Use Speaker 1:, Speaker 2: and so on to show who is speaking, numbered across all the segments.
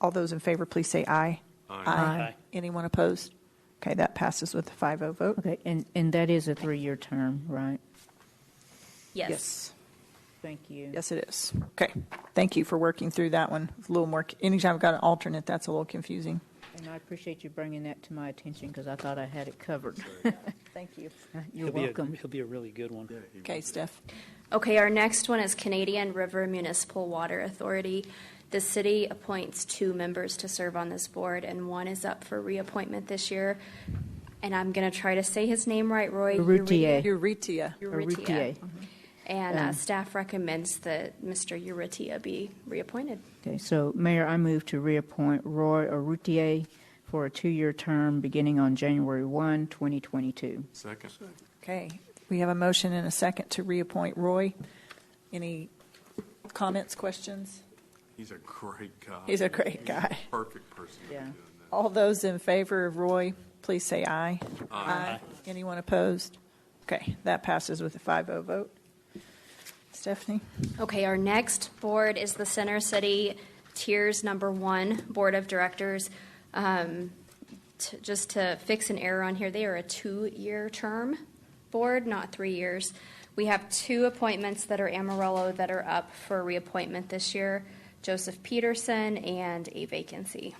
Speaker 1: All those in favor, please say aye.
Speaker 2: Aye.
Speaker 1: Anyone opposed? Okay, that passes with a 5-0 vote.
Speaker 2: Okay, and, and that is a three-year term, right?
Speaker 3: Yes.
Speaker 2: Thank you.
Speaker 1: Yes, it is. Okay, thank you for working through that one. It's A little more, anytime I've got an alternate, that's a little confusing.
Speaker 2: And I appreciate you bringing that to my attention because I thought I had it covered.
Speaker 1: Thank you.
Speaker 2: You're
Speaker 4: He'll be a-
Speaker 2: welcome.
Speaker 4: He'll be a really good one.
Speaker 1: Okay, Steph.
Speaker 3: Okay, our next one is Canadian River Municipal Water Authority. The city appoints two members to serve on this board, and one is up for reappointment this year. And I'm going to try to say his name right, Roy.
Speaker 2: Urrutia.
Speaker 1: Euretia.
Speaker 2: Urrutia.
Speaker 3: Urrutia. And uh,
Speaker 2: Um,
Speaker 3: staff recommends that Mr. Urrutia be reappointed.
Speaker 2: Okay, so Mayor, I move to reappoint Roy Arutier for a two-year term beginning on January 1, 2022.
Speaker 5: Second.
Speaker 1: Okay, we have a motion and a second to reappoint Roy. Any comments, questions?
Speaker 5: He's a great guy.
Speaker 1: He's a great guy.
Speaker 5: Perfect person to be
Speaker 2: Yeah.
Speaker 5: doing that.
Speaker 1: All those in favor of Roy, please say aye.
Speaker 5: Aye.
Speaker 1: Anyone opposed? Okay, that passes with a 5-0 vote. Stephanie?
Speaker 3: Okay, our next board is the Center City Tiers Number One Board of Directors. Um, t- Just to fix an error on here, they are a two-year term board, not three years. We have two appointments that are Amarillo that are up for reappointment this year, Joseph Peterson and a vacancy.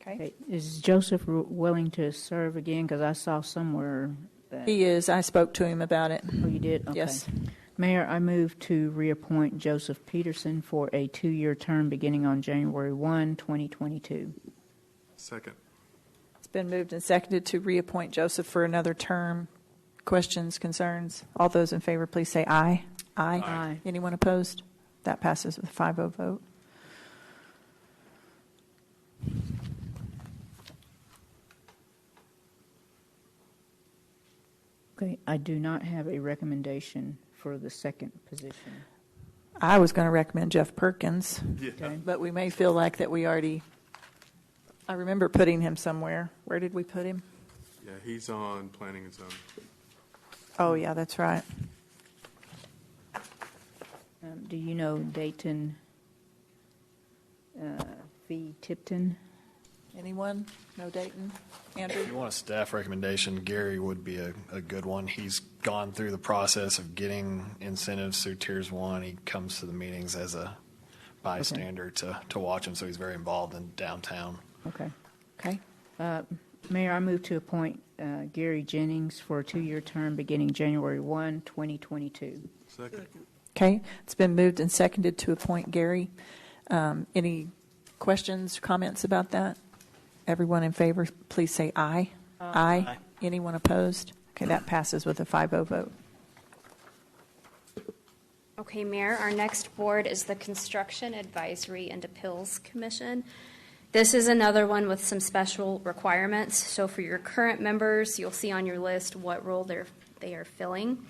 Speaker 1: Okay.
Speaker 2: Okay, Is Joseph w- willing to serve again? Because I saw somewhere that,
Speaker 1: He is, I spoke to him about it.
Speaker 2: oh, you did? Okay.
Speaker 1: Yes.
Speaker 2: Mayor, I move to reappoint Joseph Peterson for a two-year term beginning on January 1, 2022.
Speaker 5: Second.
Speaker 1: It's been moved and seconded to reappoint Joseph for another term. Questions, concerns? All those in favor, please say aye. Aye.
Speaker 2: Aye.
Speaker 1: Anyone opposed? That passes with a 5-0 vote.
Speaker 2: Okay, I do not have a recommendation for the second position.
Speaker 1: I was going to recommend Jeff Perkins,
Speaker 5: Yeah.
Speaker 2: Okay.
Speaker 1: but we may feel like that we already, I remember putting him somewhere. Where did we put him?
Speaker 5: Yeah, he's on planning and zoning.
Speaker 1: Oh, yeah, that's right.
Speaker 2: Um, Do you know Dayton uh, V. Tipton?
Speaker 1: Anyone? No Dayton? Andrew?
Speaker 6: If you want a staff recommendation, Gary would be a, a good one. He's gone through the process of getting incentives through tiers one. He comes to the meetings as a bystander to, to watch them, so he's very involved in downtown.
Speaker 2: Okay.
Speaker 1: Okay.
Speaker 2: Mayor, I move to appoint uh, Gary Jennings for a two-year term beginning January 1, 2022.
Speaker 5: Second.
Speaker 1: Okay, it's been moved and seconded to appoint Gary. Um, Any questions, comments about that? Everyone in favor, please say aye. Aye. Anyone opposed? Okay, that passes with a 5-0 vote.
Speaker 3: Okay, Mayor, our next board is the Construction Advisory and Appeals Commission. This is another one with some special requirements. So for your current members, you'll see on your list what role they're, they are filling.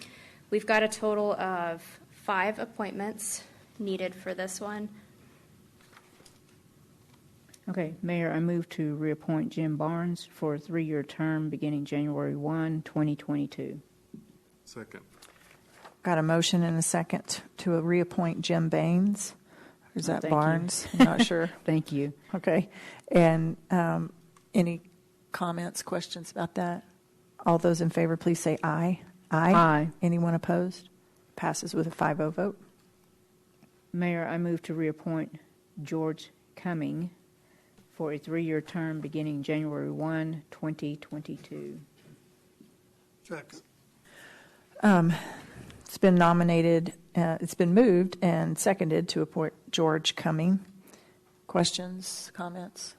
Speaker 3: We've got a total of five appointments needed for this one.
Speaker 2: Okay, Mayor, I move to reappoint Jim Barnes for a three-year term beginning January 1, 2022.
Speaker 5: Second.
Speaker 1: Got a motion and a second to reappoint Jim Baines. Or is
Speaker 2: Oh,
Speaker 1: that
Speaker 2: thank you.
Speaker 1: Barnes? I'm not sure.
Speaker 2: Thank you.
Speaker 1: Okay. And um, any comments, questions about that? All those in favor, please say aye.
Speaker 2: Aye.
Speaker 1: Anyone opposed? Passes with a 5-0 vote.
Speaker 2: Mayor, I move to reappoint George Cumming for a three-year term beginning January 1, 2022.
Speaker 5: Second.
Speaker 1: It's been nominated, uh, it's been moved and seconded to appoint George Cumming. Questions, comments?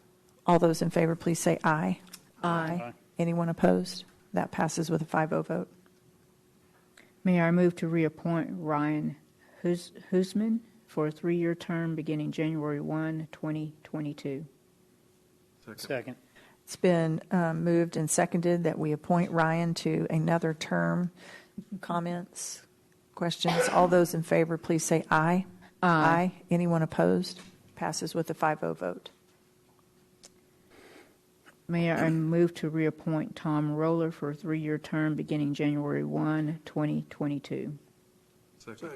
Speaker 1: All those in favor, please say aye. Aye. Anyone opposed? That passes with a 5-0 vote.
Speaker 2: Mayor, I move to reappoint Ryan Hus- Husman for a three-year term beginning January 1, 2022.
Speaker 5: Second.
Speaker 4: Second.
Speaker 1: It's been um, moved and seconded that we appoint Ryan to another term. Comments, questions? All those in favor, please say aye. Aye. Anyone opposed? Passes with a 5-0 vote.
Speaker 2: Mayor, I move to reappoint Tom Roller for a three-year term beginning January 1, 2022.
Speaker 5: Second.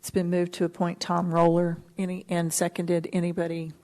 Speaker 1: It's been moved to appoint Tom Roller, any, and seconded. Anybody